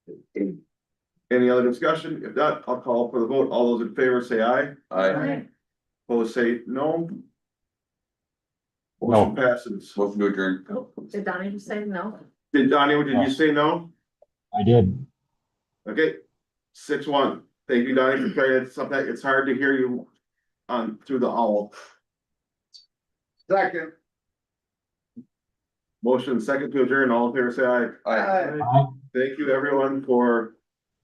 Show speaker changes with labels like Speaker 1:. Speaker 1: Any other discussion? If not, I'll call for the vote. All those in favor say aye.
Speaker 2: Aye.
Speaker 1: Opposed say no.
Speaker 3: No.
Speaker 1: Motion passes.
Speaker 2: Motion to adjourn.
Speaker 4: Did Donnie just say no?
Speaker 1: Did Donnie, did you say no?
Speaker 3: I did.
Speaker 1: Okay, six one. Thank you, Donnie, for carrying it. Something, it's hard to hear you on, through the owl. Second. Motion second to adjourn. All in favor say aye.
Speaker 2: Aye.
Speaker 3: Aye.
Speaker 1: Thank you, everyone, for